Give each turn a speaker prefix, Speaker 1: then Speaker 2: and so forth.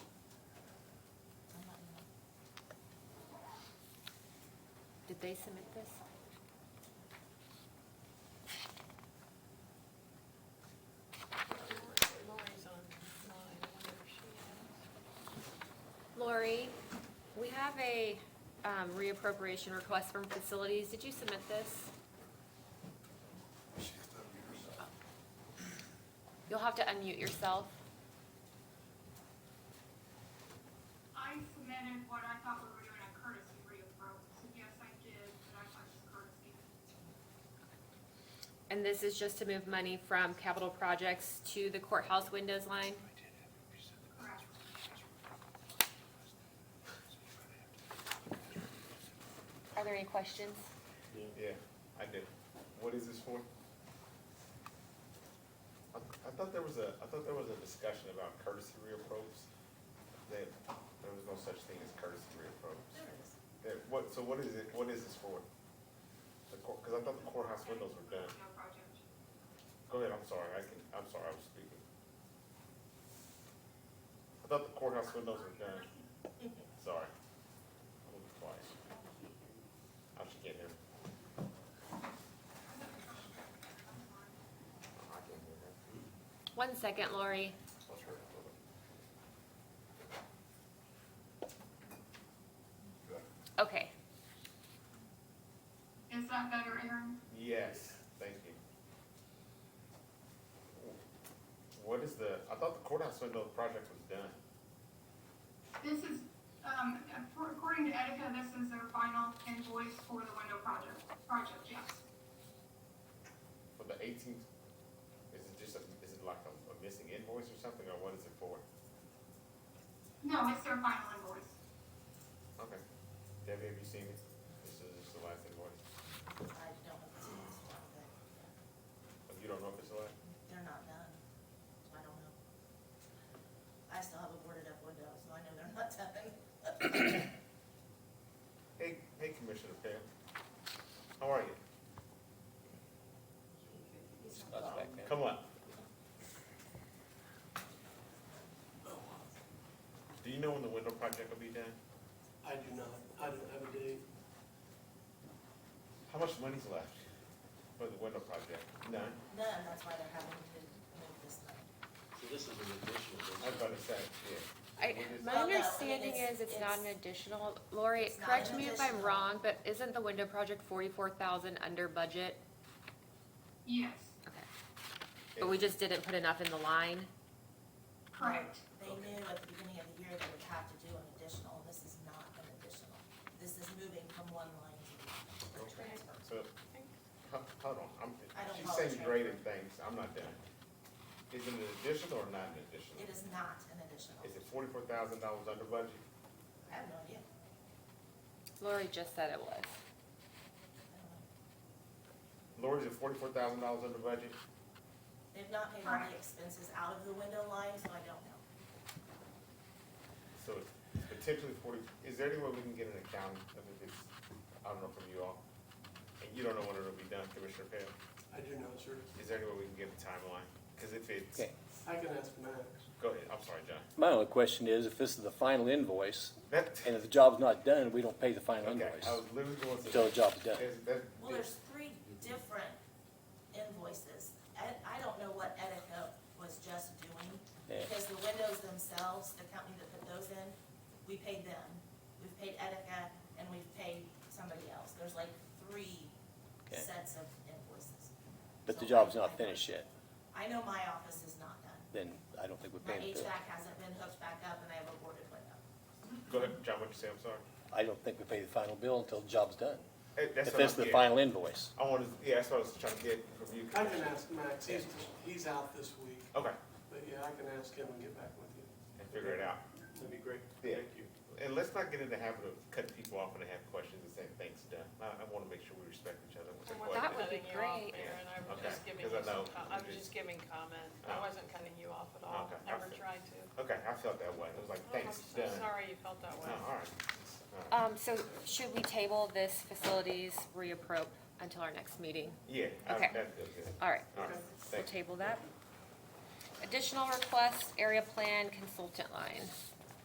Speaker 1: they submit this?
Speaker 2: Lori's online, I wonder if she has.
Speaker 1: Lori, we have a um, reappropriation request from facilities. Did you submit this? You'll have to unmute yourself.
Speaker 3: I submitted what I thought we were doing a courtesy reapproach, so yes, I did, but I thought it was courtesy.
Speaker 1: And this is just to move money from capital projects to the courthouse windows line?
Speaker 3: Correct.
Speaker 1: Are there any questions?
Speaker 4: Yeah, I did. What is this for? I, I thought there was a, I thought there was a discussion about courtesy reapproaches. That there was no such thing as courtesy reapproaches. There is. what, so what is it, what is this for? The court, cause I thought the courthouse windows were done.
Speaker 3: No project.
Speaker 4: Go ahead, Oh, I'm sorry, I can, I'm sorry, I was speaking. I thought the courthouse windows were done. Sorry. I'm gonna be quiet. I should get here. I can't hear her.
Speaker 1: One second, Lori.
Speaker 4: Let's hurry up a little.
Speaker 1: Okay.
Speaker 3: Is that better, Aaron?
Speaker 4: Yes, thank you. What is the, I thought the courthouse window project was done.
Speaker 3: This is, um, according to Etika, this is their final invoice for the window project, project, yes.
Speaker 4: For the eighteenth, is it just a, is it like a, a missing invoice or something, or what is it for?
Speaker 3: No, it's their final invoice.
Speaker 4: Okay. Debbie, have you seen it? This is just the last invoice.
Speaker 5: I don't have the city's one, but
Speaker 4: Oh, You don't know if it's the last?
Speaker 5: they're not done, so I don't know. I still have a boarded up window, so I know they're not done.
Speaker 4: Hey, hey Commissioner Pam. How are you? Come on. Do you know when the window project will be done?
Speaker 6: I do not, I don't have a date.
Speaker 4: How much money's left for the window project? None?
Speaker 5: None, that's why they're having to move this money.
Speaker 7: So this is an additional.
Speaker 4: I was about to say, yeah.
Speaker 1: I,
Speaker 4: What is-
Speaker 1: my
Speaker 5: Well, no, I mean,
Speaker 1: understanding
Speaker 5: it's-
Speaker 1: is it's not an
Speaker 5: it's-
Speaker 1: additional, Lori,
Speaker 5: It's not
Speaker 1: correct
Speaker 5: an
Speaker 1: me if I'm
Speaker 5: additional.
Speaker 1: wrong, but isn't the window project forty-four thousand under budget?
Speaker 3: Yes,
Speaker 1: Okay, but we just didn't put enough in the line?
Speaker 3: correct.
Speaker 5: They knew at the beginning of the year they would have to do an additional, this is not an additional. This is moving from one line to the other,
Speaker 4: Okay.
Speaker 5: transfer.
Speaker 4: So, ho- hold on, I'm,
Speaker 5: I don't
Speaker 4: she's
Speaker 5: follow
Speaker 4: saying
Speaker 5: trend.
Speaker 4: graded things, I'm not done. Is it an additional or not an additional?
Speaker 5: It is not an additional.
Speaker 4: Is it forty-four thousand dollars under budget?
Speaker 5: I have no idea.
Speaker 1: Lori just said it was.
Speaker 5: I don't know.
Speaker 4: Lori, is it forty-four thousand dollars under budget?
Speaker 5: They've not paid all the expenses out of the window line, so I don't know.
Speaker 4: So it's potentially forty, is there any way we can get an account of if it's, I don't know from you all? And you don't know when it'll be done, Commissioner Pam?
Speaker 6: I do not, sir.
Speaker 4: Is there any way we can get a timeline? Cause if it's,
Speaker 8: Okay.
Speaker 6: I can ask Max.
Speaker 4: go ahead, I'm sorry, John.
Speaker 8: My only question is, if this is the final invoice,
Speaker 4: That,
Speaker 8: and if the job's not done, we don't pay the final
Speaker 4: okay,
Speaker 8: invoice
Speaker 4: I was literally going to.
Speaker 8: until the job's done.
Speaker 4: That's- that-
Speaker 5: Well, there's three different invoices. I, I don't know what Etika was just doing,
Speaker 8: Yeah.
Speaker 5: because the windows themselves, the company that put those in, we paid them. We've paid Etika and we've paid somebody else. There's like three
Speaker 8: Okay.
Speaker 5: sets of invoices.
Speaker 8: But the
Speaker 5: So
Speaker 8: job's
Speaker 5: I-
Speaker 8: not finished yet,
Speaker 5: I know my office is not done.
Speaker 8: then I don't think we
Speaker 5: My
Speaker 8: pay them.
Speaker 5: HVAC hasn't been hooked back up and I have a boarded window.
Speaker 4: Go ahead, John, what you say, I'm sorry?
Speaker 8: I don't think we pay the final bill until the job's done.
Speaker 4: Eh, That's
Speaker 8: If
Speaker 4: what I'm
Speaker 8: this is the
Speaker 4: getting.
Speaker 8: final invoice.
Speaker 4: I wanted, yeah, that's what I was trying to get from you.
Speaker 6: I can ask Max, he's, he's out this week,
Speaker 4: Okay,
Speaker 6: but yeah, I can ask him and get back with you.
Speaker 4: and figure it out.
Speaker 6: That'd be great.
Speaker 4: Yeah. And let's not get in the habit of cutting people off when they have questions and saying things done. I, I wanna make sure we respect each other with the
Speaker 2: And we're
Speaker 1: That
Speaker 2: not
Speaker 1: would
Speaker 4: questions.
Speaker 1: be
Speaker 2: cutting you off,
Speaker 1: great.
Speaker 2: Aaron, I was
Speaker 4: Okay,
Speaker 2: just giving
Speaker 4: because I
Speaker 2: you some,
Speaker 4: know
Speaker 2: co- I
Speaker 4: we
Speaker 2: was
Speaker 4: just-
Speaker 2: just giving comment. I
Speaker 4: Oh.
Speaker 2: wasn't cutting you off at all,
Speaker 4: Okay, I
Speaker 2: never
Speaker 4: see.
Speaker 2: tried to.
Speaker 4: Okay, I felt that way. It was like,
Speaker 2: Oh,
Speaker 4: thanks,
Speaker 2: I'm
Speaker 4: done.
Speaker 2: so sorry you felt that
Speaker 4: No,
Speaker 2: way.
Speaker 4: all right. All right.
Speaker 1: Um, so should we table this facilities reapprop until our next meeting?
Speaker 4: Yeah, I-
Speaker 1: okay.
Speaker 4: that feels good.
Speaker 1: All right,
Speaker 4: All right,
Speaker 1: we'll
Speaker 4: thank you.
Speaker 1: table that. Additional request, area plan consultant line.